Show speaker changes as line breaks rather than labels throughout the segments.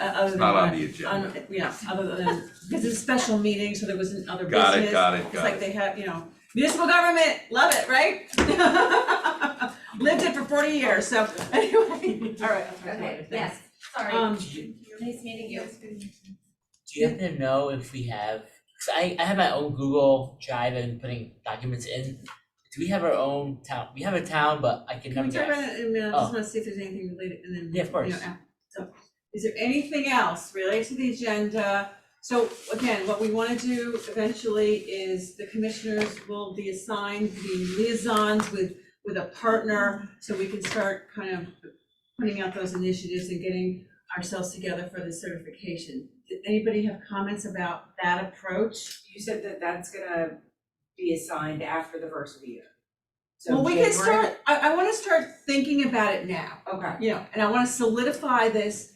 Uh, other than
not on
that-
the agenda.
on- Yeah, other than, because it's a special meeting, so there wasn't other business.
Got it, got it,
It's
got
like
it.
they have, you know, municipal government, love it, right? Lived it for forty years, so anyway, all right.
Okay, yes, sorry.
Um,
Nice meeting you.
Do you happen to know if we have, cause I, I have my own Google Drive and putting documents in. Do we have our own town? We have a town, but I can
Can
never
we talk about
guess.
it in a minute, I just
Oh.
wanna see if there's anything related, and then.
Yeah, of course.
you know, af- So, is there anything else related to the agenda? So again, what we wanna do eventually is the commissioners will be assigned the liaisons with, with a partner, so we can start kind of putting out those initiatives and getting ourselves together for the certification. Did anybody have comments about that approach?
You said that that's gonna be assigned after the first of the year. So
Well, we can
January-
start, I, I wanna start thinking about it now.
Okay,
you know, and I wanna solidify this.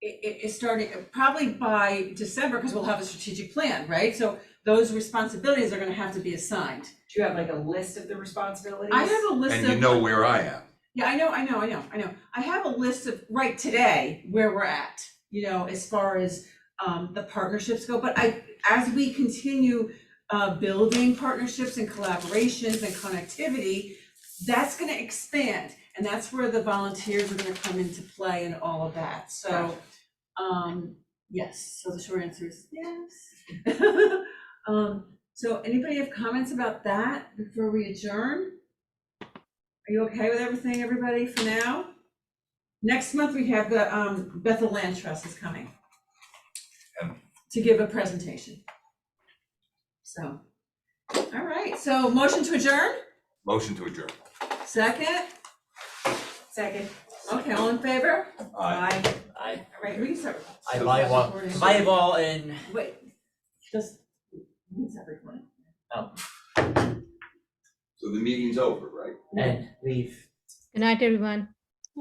It, it, it started probably by December, cause we'll have a strategic plan, right? So those responsibilities are gonna have to be assigned.
do you have like a list of the responsibilities?
I have a list of.
And you know where I am.
Yeah, I know, I know, I know, I know. I have a list of, right today, where we're at, you know, as far as um the partnerships go, but I, as we continue uh building partnerships and collaborations and connectivity, that's gonna expand, and that's where the volunteers are gonna come into play and all of that, so um, yes, so the short answer is yes. Um, so anybody have comments about that before we adjourn? Are you okay with everything, everybody, for now? Next month, we have the um, Bethel Land Trust is coming
Um.
to give a presentation. So, all right, so motion to adjourn,
Motion to adjourn.
second,
Second.
okay, all in favor?
Aye.
I,
All right, we can start,
I
So-
volleyball,
Recording.
volleyball and,
wait, just, we can start recording.
So the meeting's over, right?
and leave.
Good night, everyone.